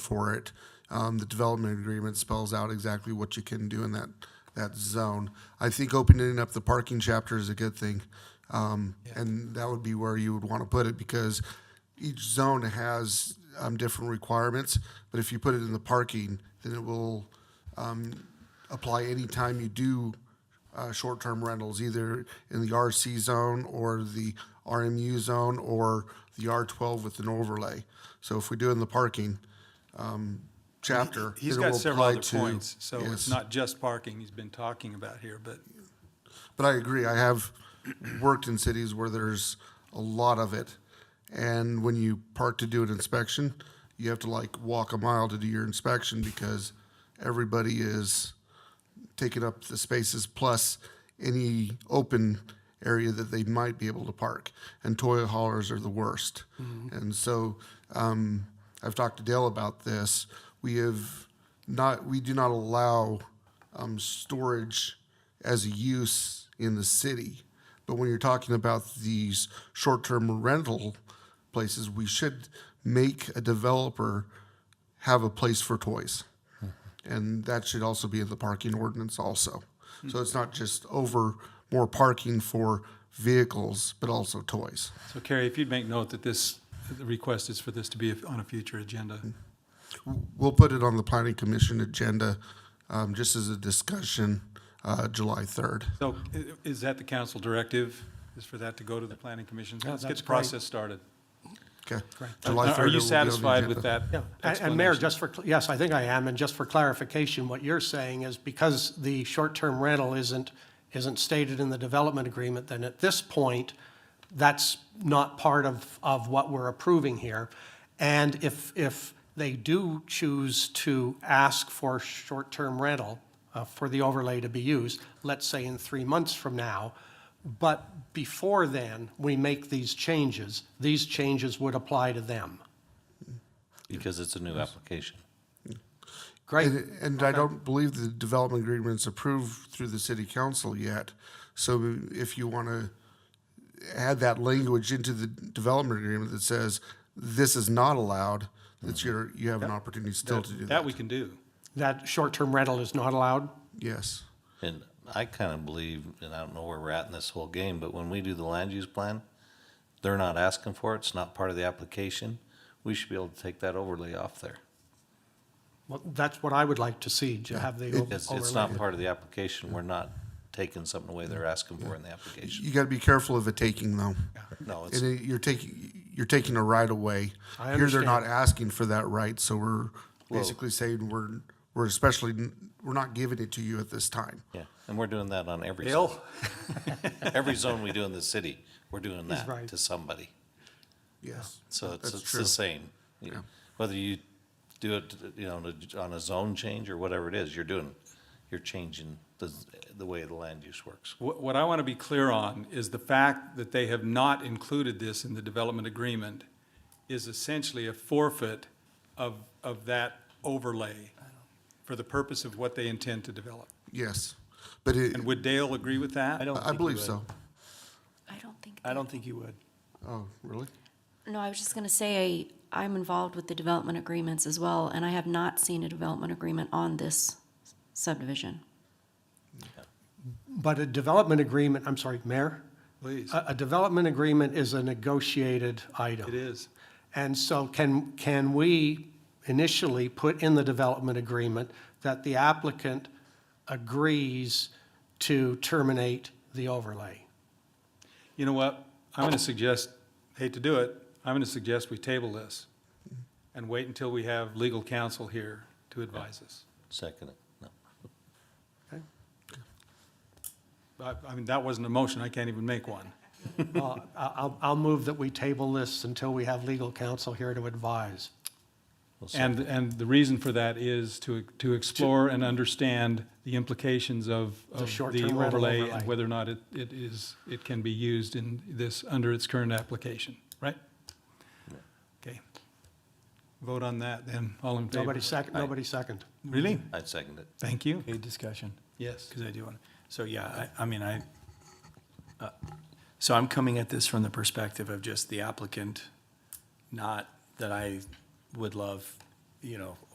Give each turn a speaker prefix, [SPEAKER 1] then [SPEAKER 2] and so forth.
[SPEAKER 1] for it. Um, the development agreement spells out exactly what you can do in that, that zone. I think opening up the parking chapter is a good thing. Um, and that would be where you would want to put it because each zone has, um, different requirements. But if you put it in the parking, then it will, apply anytime you do uh, short-term rentals, either in the RC zone or the RMU zone or the R12 with an overlay. So if we do in the parking um, chapter,
[SPEAKER 2] He's
[SPEAKER 1] then it
[SPEAKER 2] got
[SPEAKER 1] will
[SPEAKER 2] several
[SPEAKER 1] apply
[SPEAKER 2] other
[SPEAKER 1] to-
[SPEAKER 2] points, so
[SPEAKER 1] Yes.
[SPEAKER 2] it's not just parking he's been talking about here, but
[SPEAKER 1] But I agree. I have worked in cities where there's a lot of it, and when you park to do an inspection, you have to like walk a mile to do your inspection because everybody is taking up the spaces plus any open area that they might be able to park. And toy haulers are the worst. And so um, I've talked to Dale about this. We have not. We do not allow um, storage as a use in the city. But when you're talking about these short-term rental places, we should make a developer have a place for toys. And that should also be in the parking ordinance also. So it's not just over more parking for vehicles, but also toys.
[SPEAKER 2] So Carrie, if you'd make note that this, the request is for this to be on a future agenda.
[SPEAKER 1] We'll put it on the planning commission agenda, um, just as a discussion, uh, July third.
[SPEAKER 2] So i- is that the council directive, is for that to go to the planning commission? Let's get
[SPEAKER 3] that's
[SPEAKER 2] the process started.
[SPEAKER 1] Okay. July
[SPEAKER 2] Are
[SPEAKER 1] 3rd, it will be
[SPEAKER 2] you
[SPEAKER 1] on the
[SPEAKER 2] satisfied with
[SPEAKER 1] agenda.
[SPEAKER 2] that
[SPEAKER 3] Yeah, and-
[SPEAKER 2] explanation?
[SPEAKER 3] and Mayor, just for, cl- yes, I think I am, and just for clarification, what you're saying is because the short-term rental isn't, isn't stated in the development agreement, then at this point, that's not part of, of what we're approving here. And if, if they do choose to ask for short-term rental uh, for the overlay to be used, let's say in three months from now, but before then, we make these changes, these changes would apply to them.
[SPEAKER 4] because it's a new application.
[SPEAKER 3] Great.
[SPEAKER 1] And, and I don't believe the development agreement's approved through the city council yet. So if you want to add that language into the development agreement that says this is not allowed, that's your, you have an opportunity still to do
[SPEAKER 2] That
[SPEAKER 1] that.
[SPEAKER 2] we can do.
[SPEAKER 3] that short-term rental is not allowed?
[SPEAKER 1] Yes.
[SPEAKER 4] And I kind of believe, and I don't know where we're at in this whole game, but when we do the land use plan, they're not asking for it, it's not part of the application. We should be able to take that overlay off there.
[SPEAKER 3] Well, that's what I would like to see, to have the o-
[SPEAKER 4] It's, it's
[SPEAKER 3] overlay.
[SPEAKER 4] not part of the application, we're not taking something away they're asking for in the application.
[SPEAKER 1] You got to be careful of a taking though.
[SPEAKER 4] No, it's,
[SPEAKER 1] And it- you're taking, you're taking a right away.
[SPEAKER 3] I
[SPEAKER 1] Here they're
[SPEAKER 3] understand.
[SPEAKER 1] not asking for that right, so we're basically saying we're, we're especially, we're not giving it to you at this time.
[SPEAKER 4] yeah, and we're doing that on every zone.
[SPEAKER 2] Bill?
[SPEAKER 4] Every zone we do in the city, we're doing that
[SPEAKER 3] right.
[SPEAKER 4] to somebody.
[SPEAKER 1] Yes.
[SPEAKER 4] So it's,
[SPEAKER 1] That's
[SPEAKER 4] it's
[SPEAKER 1] true.
[SPEAKER 4] the same. You- Whether you do it, you know, on a- on a zone change or whatever it is, you're doing, you're changing the, the way the land use works.
[SPEAKER 2] What, what I want to be clear on is the fact that they have not included this in the development agreement is essentially a forfeit of, of that overlay for the purpose of what they intend to develop.
[SPEAKER 1] Yes. But it,
[SPEAKER 2] And would Dale agree with that?
[SPEAKER 5] don't
[SPEAKER 1] I believe so.
[SPEAKER 5] I don't think.
[SPEAKER 3] I don't think you would.
[SPEAKER 1] Oh, really?
[SPEAKER 5] No, I was just going to say, I, I'm involved with the development agreements as well, and I have not seen a development agreement on this subdivision.
[SPEAKER 3] But a development agreement, I'm sorry, Mayor?
[SPEAKER 2] Please,
[SPEAKER 3] A, a development agreement is a negotiated item.
[SPEAKER 2] it is.
[SPEAKER 3] And so can, can we initially put in the development agreement that the applicant agrees to terminate the overlay?
[SPEAKER 2] You know what? I'm going to suggest, hate to do it, I'm going to suggest we table this and wait until we have legal counsel here to advise us.
[SPEAKER 4] Second, it. no.
[SPEAKER 2] I, I mean, that wasn't a motion, I can't even make one.
[SPEAKER 3] Well, I- I'll, I'll move that we table this until we have legal counsel here to advise.
[SPEAKER 4] We'll see.
[SPEAKER 2] And, and the reason for that is to, to explore and understand the implications of, of the
[SPEAKER 3] short-term rental
[SPEAKER 2] overlay and
[SPEAKER 3] overlay.
[SPEAKER 2] whether or not it, it is, it can be used in this, under its current application, right? Okay. Vote on that then, all in favor?
[SPEAKER 3] Nobody second, nobody second.
[SPEAKER 2] Really?
[SPEAKER 4] I'd second it.
[SPEAKER 2] Thank you.
[SPEAKER 6] Okay, discussion,
[SPEAKER 2] Yes.
[SPEAKER 6] because I do want, so yeah, I, I mean, I, uh, so I'm coming at this from the perspective of just the applicant, not that I would love you know,